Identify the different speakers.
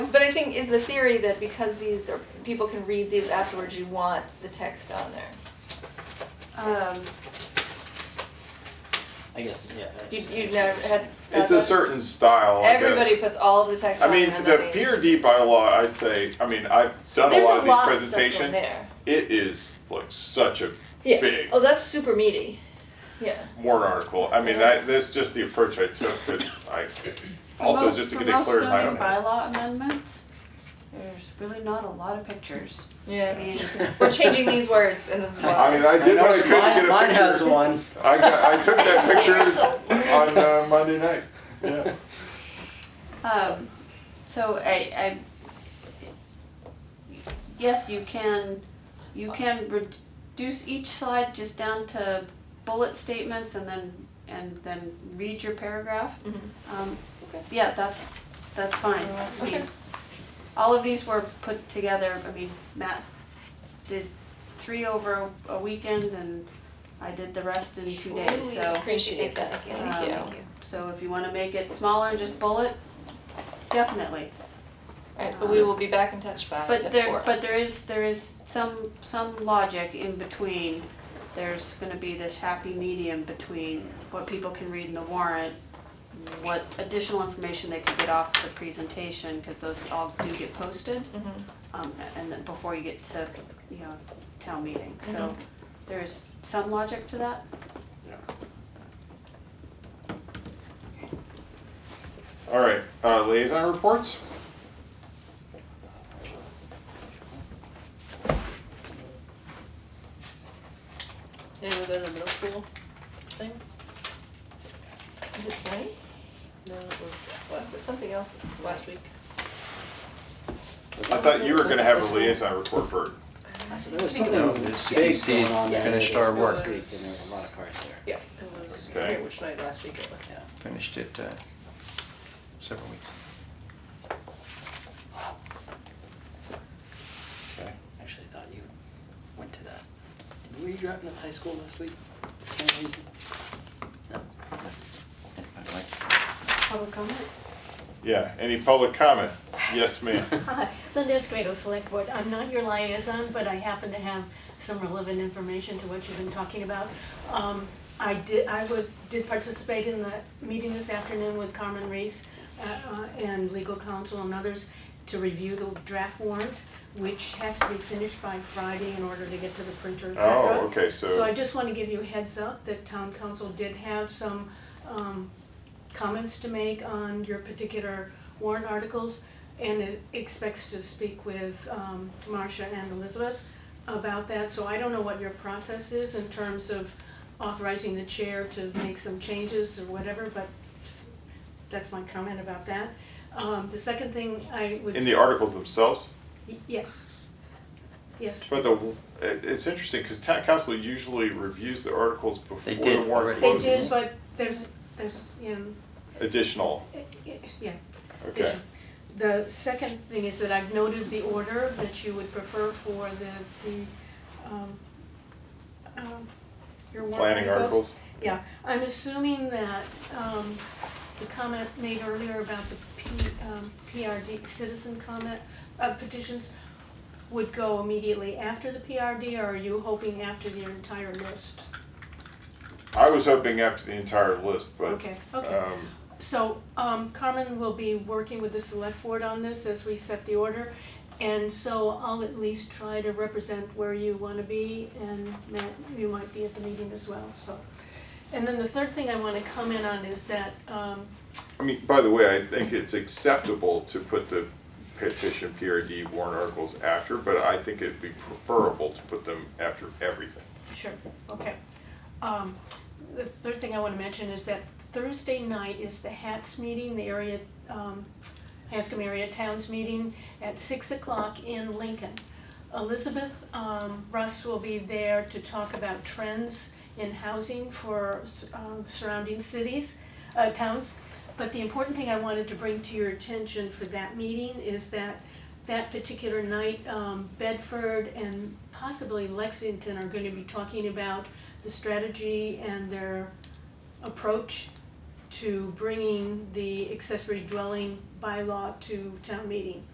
Speaker 1: I think is the theory that because these are, people can read these afterwards, you want the text on there.
Speaker 2: Um,
Speaker 3: I guess, yeah. that's-
Speaker 1: You, you never had.
Speaker 4: It's a certain style, I guess.
Speaker 1: Everybody puts all of the text
Speaker 4: I
Speaker 1: on
Speaker 4: mean,
Speaker 1: there and
Speaker 4: the
Speaker 1: then they-
Speaker 4: PRD bylaw, I'd say, I mean, I've done a
Speaker 1: There's
Speaker 4: lot of these
Speaker 1: of stuff in
Speaker 4: presentations.
Speaker 1: there.
Speaker 4: It is like such a
Speaker 1: Yeah,
Speaker 4: big
Speaker 1: oh, that's super meaty, yeah.
Speaker 4: warrant article. I mean,
Speaker 1: Yeah.
Speaker 4: that, that's just the approach I took, because I,
Speaker 2: for
Speaker 4: also
Speaker 2: most-
Speaker 4: just to
Speaker 2: for
Speaker 4: get it
Speaker 2: most
Speaker 4: clear in my own
Speaker 2: zoning
Speaker 4: head.
Speaker 2: bylaw amendments, there's really not a lot of pictures. I
Speaker 1: Yeah,
Speaker 2: mean,
Speaker 1: we're changing these words in this one.
Speaker 4: I mean, I did
Speaker 3: know
Speaker 4: what I
Speaker 3: it's
Speaker 4: could to get a
Speaker 3: mine-
Speaker 4: picture.
Speaker 3: Mine has one.
Speaker 4: I got, I took that picture on uh, Monday night, yeah.
Speaker 2: Um, so I, I, yes, you can, you can reduce each slide just down to bullet statements and then, and then read your paragraph.
Speaker 1: Mhm.
Speaker 2: Um,
Speaker 1: Okay.
Speaker 2: yeah, that, that's fine. I mean,
Speaker 1: Okay.
Speaker 2: All of these were put together, I mean, Matt did three over a weekend and I did the rest in two days, so.
Speaker 1: Appreciate that, thank
Speaker 2: Um,
Speaker 1: you.
Speaker 2: So if you wanna make it smaller and just bullet, definitely.
Speaker 1: Alright, but we will be back in touch by the
Speaker 2: But there,
Speaker 1: fourth.
Speaker 2: but there is, there is some, some logic in between. There's gonna be this happy medium between what people can read in the warrant, what additional information they could get off the presentation, cause those all do get posted.
Speaker 1: Mhm.
Speaker 2: Um, and then before you get to, you know, town meeting, so there's some logic to that.
Speaker 4: All right, uh, liaison reports?
Speaker 5: Anyone go to the middle school thing?
Speaker 1: Is it tonight?
Speaker 5: No, it was
Speaker 1: Well,
Speaker 5: last,
Speaker 1: Something else was this
Speaker 5: last week.
Speaker 4: I thought you were gonna have a liaison report, Bert.
Speaker 6: There was something big going on there.
Speaker 7: Finished our
Speaker 6: This
Speaker 7: work.
Speaker 6: week, and there was a lot of cars there.
Speaker 5: Yeah, it was, I
Speaker 4: Okay.
Speaker 5: forget which night last week it was.
Speaker 7: Finished it uh, several weeks.
Speaker 4: Okay.
Speaker 6: Actually, I thought you went to that. Were you dropping at the high school last week for any reason? No.
Speaker 7: I'd like
Speaker 2: Public comment?
Speaker 4: Yeah, any public comment? Yes, ma'am.
Speaker 8: Hi, Linda Escobedo, Select Board. I'm not your liaison, but I happen to have some relevant information to what you've been talking about. Um, I did, I was, did participate in the meeting this afternoon with Carmen Reese uh, uh, and legal counsel and others to review the draft warrant, which has to be finished by Friday in order to get to the printer, et cetera.
Speaker 4: Oh, okay,
Speaker 8: So I
Speaker 4: so,
Speaker 8: just want to give you a heads up that town council did have some um, comments to make on your particular warrant articles and it expects to speak with um, Marcia and Elizabeth about that. So I don't know what your process is in terms of authorizing the chair to make some changes or whatever, but s- that's my comment about that. Um, The second thing I would.
Speaker 4: in the articles themselves,
Speaker 8: Y- Yes. Yes.
Speaker 4: but the, it, it's interesting, cause town council usually reviews the articles before
Speaker 7: They
Speaker 4: the
Speaker 7: did
Speaker 4: warrant
Speaker 7: already.
Speaker 8: They
Speaker 4: closes.
Speaker 8: did, but there's, there's, you know,
Speaker 4: Additional,
Speaker 8: i- i- yeah.
Speaker 4: okay,
Speaker 8: The second thing is that I've noted the order that you would prefer for the, the, um, um, your warrant
Speaker 4: planning articles,
Speaker 8: Yeah, I'm assuming that, um, the comment made earlier about the P, um, PRD citizen comment, uh, petitions would go immediately after the PRD, or are you hoping after the entire list?
Speaker 4: I was hoping after the entire list, but,
Speaker 8: Okay, okay.
Speaker 4: um,
Speaker 8: So, um, Carmen will be working with the select board on this as we set the order. And so I'll at least try to represent where you wanna be and Matt, you might be at the meeting as well, so. And then the third thing I wanna comment on is that, um,
Speaker 4: I mean, by the way, I think it's acceptable to put the petition PRD warrant articles after, but I think it'd be preferable to put them after everything.
Speaker 8: Sure, okay. Um, the third thing I wanna mention is that Thursday night is the HATS meeting, the area, um, Hanscom Area Towns Meeting at six o'clock in Lincoln. Elizabeth, um, Russ will be there to talk about trends in housing for, uh, surrounding cities, uh, towns. But the important thing I wanted to bring to your attention for that meeting is that that particular night, um, Bedford and possibly Lexington are gonna be talking about the strategy and their approach to bringing the accessory dwelling bylaw to town meeting.